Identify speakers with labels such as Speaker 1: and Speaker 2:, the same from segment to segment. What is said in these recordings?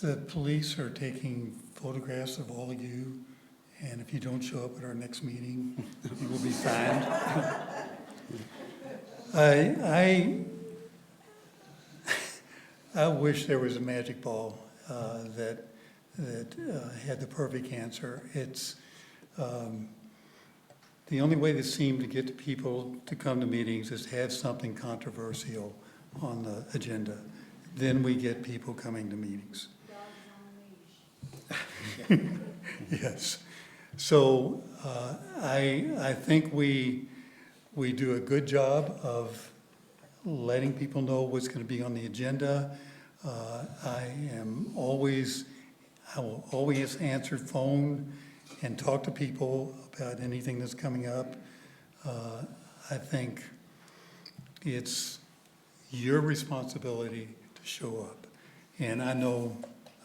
Speaker 1: The police are taking photographs of all of you, and if you don't show up at our next meeting, you will be fined. I, I, I wish there was a magic ball uh, that, that uh, had the perfect answer. It's, um, the only way that seemed to get the people to come to meetings is to have something controversial on the agenda. Then we get people coming to meetings. Yes. So uh, I, I think we, we do a good job of letting people know what's going to be on the agenda. Uh, I am always, I will always answer phone and talk to people about anything that's coming up. Uh, I think it's your responsibility to show up. And I know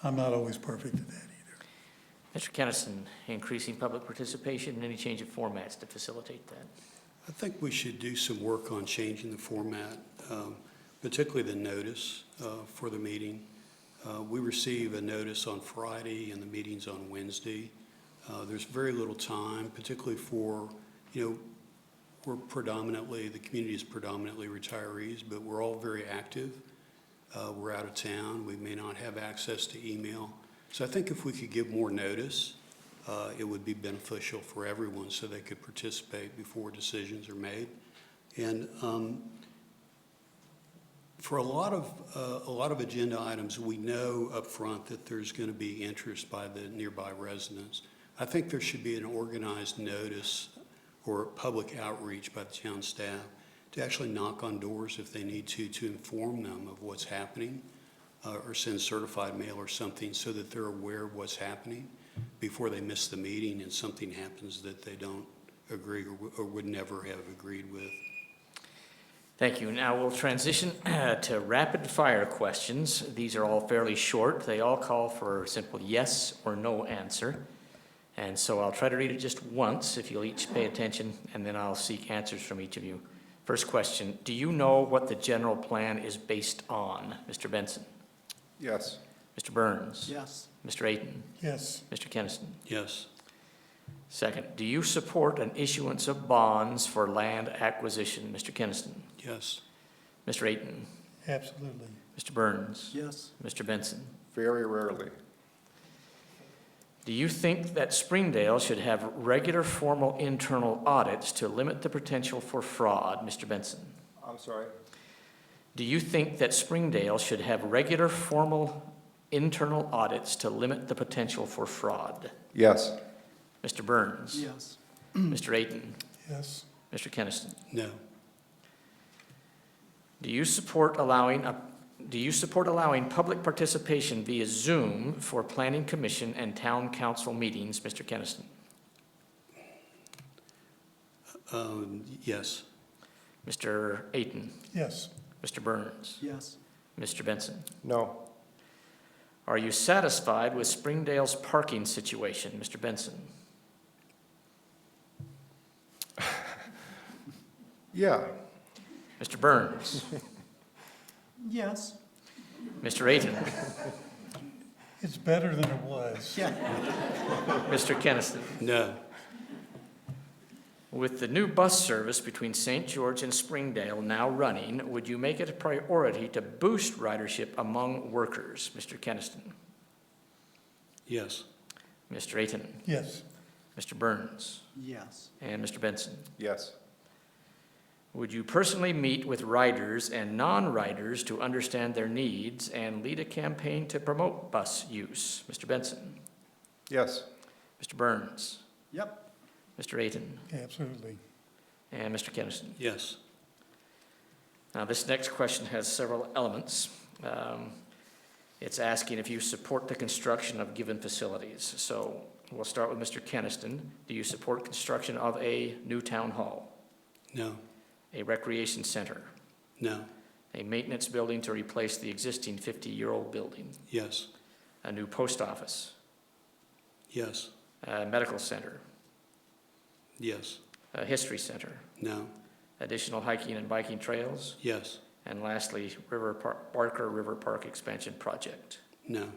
Speaker 1: I'm not always perfect at that either.
Speaker 2: Mr. Kennison, increasing public participation and any change of formats to facilitate that.
Speaker 3: I think we should do some work on changing the format, um, particularly the notice uh, for the meeting. Uh, We receive a notice on Friday and the meeting's on Wednesday. Uh, There's very little time, particularly for, you know, we're predominantly, the community is predominantly retirees, but we're all very active. Uh, We're out of town, we may not have access to email. So I think if we could give more notice, uh, it would be beneficial for everyone so they could participate before decisions are made. And um, for a lot of, uh, a lot of agenda items, we know upfront that there's going to be interest by the nearby residents. I think there should be an organized notice or public outreach by the town staff to actually knock on doors if they need to, to inform them of what's happening, uh, or send certified mail or something so that they're aware of what's happening before they miss the meeting and something happens that they don't agree or w- or would never have agreed with.
Speaker 2: Thank you. Now we'll transition uh, to rapid-fire questions. These are all fairly short. They all call for a simple yes or no answer. And so I'll try to read it just once, if you'll each pay attention, and then I'll seek answers from each of you. First question, do you know what the general plan is based on? Mr. Benson?
Speaker 4: Yes.
Speaker 2: Mr. Burns?
Speaker 5: Yes.
Speaker 2: Mr. Ayton?
Speaker 1: Yes.
Speaker 2: Mr. Kennison?
Speaker 3: Yes,
Speaker 2: Second, do you support an issuance of bonds for land acquisition? Mr. Keniston,
Speaker 3: yes,
Speaker 2: Mr. Ayton,
Speaker 1: Absolutely.
Speaker 2: Mr. Burns,
Speaker 5: Yes.
Speaker 2: Mr. Benson.
Speaker 4: Very rarely.
Speaker 2: Do you think that Springdale should have regular formal internal audits to limit the potential for fraud? Mr. Benson.
Speaker 4: I'm sorry?
Speaker 2: Do you think that Springdale should have regular formal internal audits to limit the potential for fraud?
Speaker 4: Yes.
Speaker 2: Mr. Burns.
Speaker 5: Yes.
Speaker 2: Mr. Ayton,
Speaker 1: Yes.
Speaker 2: Mr. Keniston.
Speaker 3: no,
Speaker 2: Do you support allowing, a- do you support allowing public participation via Zoom for planning commission and town council meetings, Mr. Keniston?
Speaker 3: um, yes,
Speaker 2: Mr. Ayton,
Speaker 1: Yes.
Speaker 2: Mr. Burns,
Speaker 5: Yes.
Speaker 2: Mr. Benson?
Speaker 4: No.
Speaker 2: Are you satisfied with Springdale's parking situation, Mr. Benson?
Speaker 4: Yeah.
Speaker 2: Mr. Burns,
Speaker 5: Yes.
Speaker 2: Mr. Ayton,
Speaker 1: It's better than it was.
Speaker 5: Yeah.
Speaker 2: Mr. Keniston?
Speaker 3: no,
Speaker 2: With the new bus service between St. George and Springdale now running, would you make it a priority to boost ridership among workers, Mr. Keniston?
Speaker 3: yes,
Speaker 2: Mr. Ayton?
Speaker 1: Yes.
Speaker 2: Mr. Burns,
Speaker 5: Yes.
Speaker 2: and Mr. Benson.
Speaker 4: Yes.
Speaker 2: Would you personally meet with riders and non-riders to understand their needs and lead a campaign to promote bus use? Mr. Benson,
Speaker 4: Yes.
Speaker 2: Mr. Burns,
Speaker 5: Yep.
Speaker 2: Mr. Ayton,
Speaker 1: Absolutely.
Speaker 2: and Mr. Kennison.
Speaker 3: yes,
Speaker 2: Now, this next question has several elements. Um, It's asking if you support the construction of given facilities. So we'll start with Mr. Keniston. Do you support construction of a new town hall,
Speaker 3: no,
Speaker 2: a recreation center,
Speaker 3: no,
Speaker 2: a maintenance building to replace the existing 50-year-old building,
Speaker 3: yes,
Speaker 2: a new post office,
Speaker 3: yes,
Speaker 2: a medical center,
Speaker 3: yes,
Speaker 2: a history center,
Speaker 3: no,
Speaker 2: additional hiking and biking trails,
Speaker 3: yes,
Speaker 2: and lastly, River Park, Barker River Park Expansion Project.
Speaker 3: no,